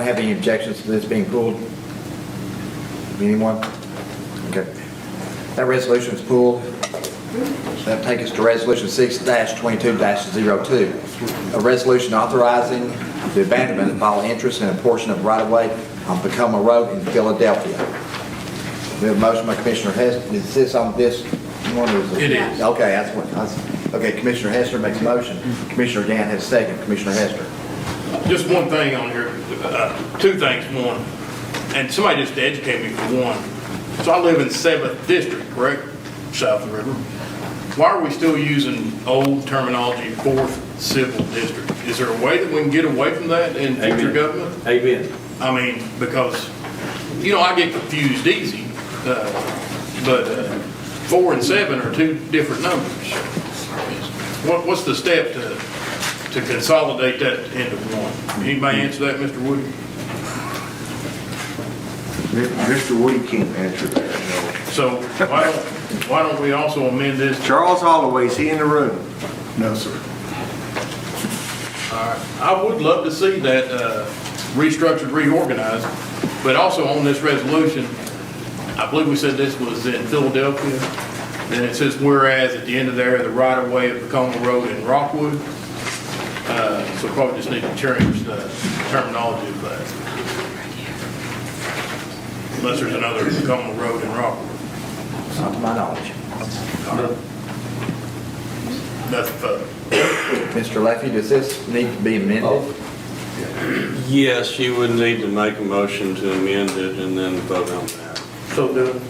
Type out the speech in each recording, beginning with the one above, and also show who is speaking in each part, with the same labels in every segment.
Speaker 1: Have any objections to this being pulled? Anyone? Okay. That resolution is pulled. That'll take us to Resolution 6-22-02, a resolution authorizing the abandonment of all interest in a portion of right-of-way on Tacoma Road in Philadelphia. We have a motion by Commissioner Hess, is this on this one? or
Speaker 2: It is.
Speaker 1: Okay, that's what, that's- okay, Commissioner Hester makes a motion, Commissioner Dan has a second, Commissioner Hester.
Speaker 2: Just one thing on here, uh, two things, one, and somebody just educated me for one. So I live in Seventh District, correct, south of the river. Why are we still using old terminology, Fourth Civil District? Is there a way that we can get away from that in future
Speaker 3: Amen.
Speaker 2: government?
Speaker 3: Amen.
Speaker 2: I mean, because, you know, I get confused easy, uh, but uh, four and seven are two different numbers. What, what's the step to, to consolidate that into one? Anybody answer that, Mr. Wood?
Speaker 4: Mr. Woody can't answer that.
Speaker 2: So why don't, why don't we also amend this?
Speaker 4: Charles Holloway, is he in the room? No, sir.
Speaker 2: I would love to see that uh, restructured, reorganized, but also on this resolution, I believe we said this was in Philadelphia, then it says whereas at the end of there, the right-of-way of Tacoma Road in Rockwood. Uh, So probably just need to change the terminology of that. Unless there's another Tacoma Road in Rockwood,
Speaker 1: Not to my knowledge.
Speaker 2: nothing further.
Speaker 1: Mr. Leffey, does this need to be
Speaker 4: Oh.
Speaker 1: amended?
Speaker 3: Yes, you would need to make a motion to amend it and then vote on that.
Speaker 2: So do.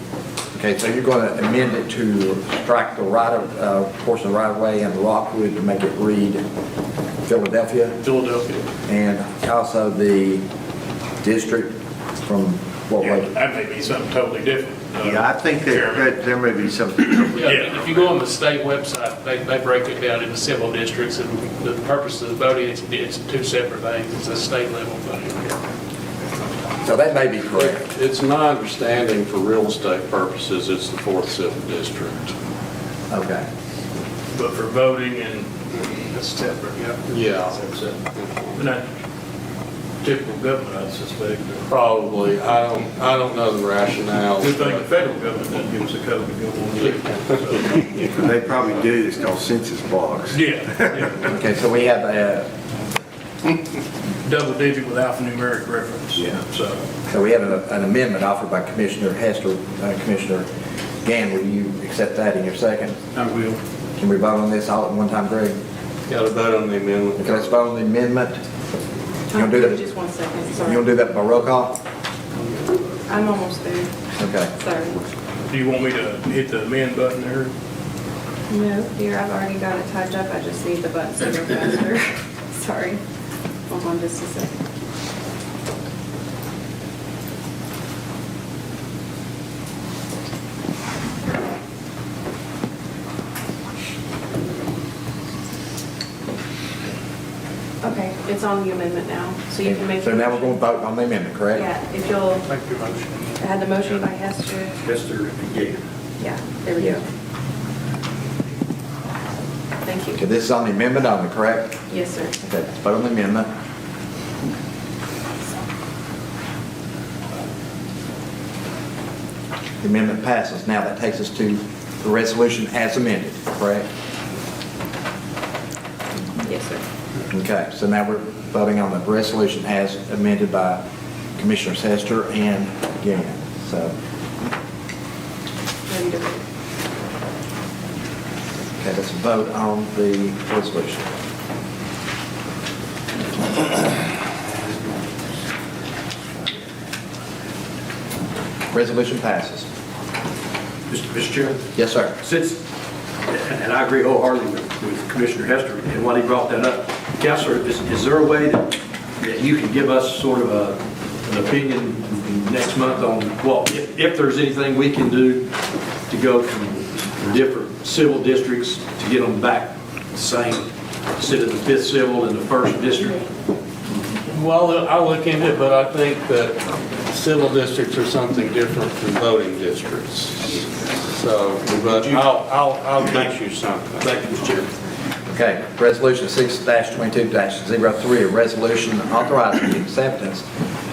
Speaker 1: Okay, so you're going to amend it to strike the right of, uh, portion of right-of-way and Rockwood to make it read Philadelphia,
Speaker 2: Philadelphia,
Speaker 1: and also the district from what
Speaker 2: yeah,
Speaker 1: way?
Speaker 2: that may be something totally different. uh,
Speaker 4: Yeah, I think that,
Speaker 2: Chairman.
Speaker 4: that there may be something.
Speaker 5: Yeah, if you go on the state website, they, they break it down into civil districts, and the purpose of the voting, it's, it's two separate things, it's a state level voting.
Speaker 1: So that may be correct.
Speaker 3: It's my understanding for real estate purposes, it's the fourth civil district.
Speaker 1: Okay.
Speaker 2: But for voting and
Speaker 5: It's separate, yeah.
Speaker 3: Yeah.
Speaker 2: not typical government, I suspect. or-
Speaker 3: Probably. I don't, I don't know the rationale.
Speaker 2: Good thing the federal government doesn't give us a code to go on.
Speaker 4: They probably do, it's called census blocks.
Speaker 2: Yeah, yeah,
Speaker 1: Okay, so we have a,
Speaker 2: double digit with alphanumeric reference.
Speaker 1: Yeah.
Speaker 2: So,
Speaker 1: so we have an- an amendment offered by Commissioner Hester, uh, Commissioner Gann, will you accept that in your second?
Speaker 2: I will.
Speaker 1: Can we vote on this all at one time, Greg?
Speaker 3: Got to vote on the amendment.
Speaker 1: Okay, let's vote on the amendment. You gonna do that,
Speaker 6: Just one second,
Speaker 1: you gonna
Speaker 6: sorry.
Speaker 1: do that by roll call?
Speaker 6: I'm almost there,
Speaker 1: Okay.
Speaker 6: sorry.
Speaker 2: Do you want me to hit the amend button there?
Speaker 6: No, here, I've already got it typed up, I just need the buttons to go faster. Sorry. Hold on just a second. Okay, it's on the amendment now, so you can make.
Speaker 1: So now we're going to vote on the amendment, correct?
Speaker 6: Yeah, if you'll,
Speaker 2: Make your motion.
Speaker 6: I had the motion by Hester.
Speaker 2: Mr. Gay.
Speaker 6: Yeah, there we go. Thank
Speaker 1: Okay,
Speaker 6: you.
Speaker 1: this is on the amendment only, correct?
Speaker 6: Yes, sir.
Speaker 1: Okay, let's vote on the amendment. The amendment passes. Now that takes us to the resolution as amended, correct?
Speaker 6: Yes, sir.
Speaker 1: Okay, so now we're voting on the resolution as amended by Commissioners Hester and Gann. So,
Speaker 6: Ready to vote.
Speaker 1: okay, let's vote on the resolution. Resolution passes.
Speaker 7: Mr. Mr. Chairman,
Speaker 1: Yes, sir.
Speaker 7: since, and I agree wholeheartedly with- with Commissioner Hester and why he brought that up, Counselor, is is there a way that that you can give us sort of a- an opinion next month on, well, if if there's anything we can do to go from different civil districts to get them back the same, instead of the fifth civil and the first district?
Speaker 3: Well, I'll look into it, but I think that civil districts are something different from voting districts. So, but I'll, I'll, I'll get you something.
Speaker 7: Thank you, Mr. Chairman.
Speaker 1: Okay, resolution six twenty-two 3 a resolution authorizing the acceptance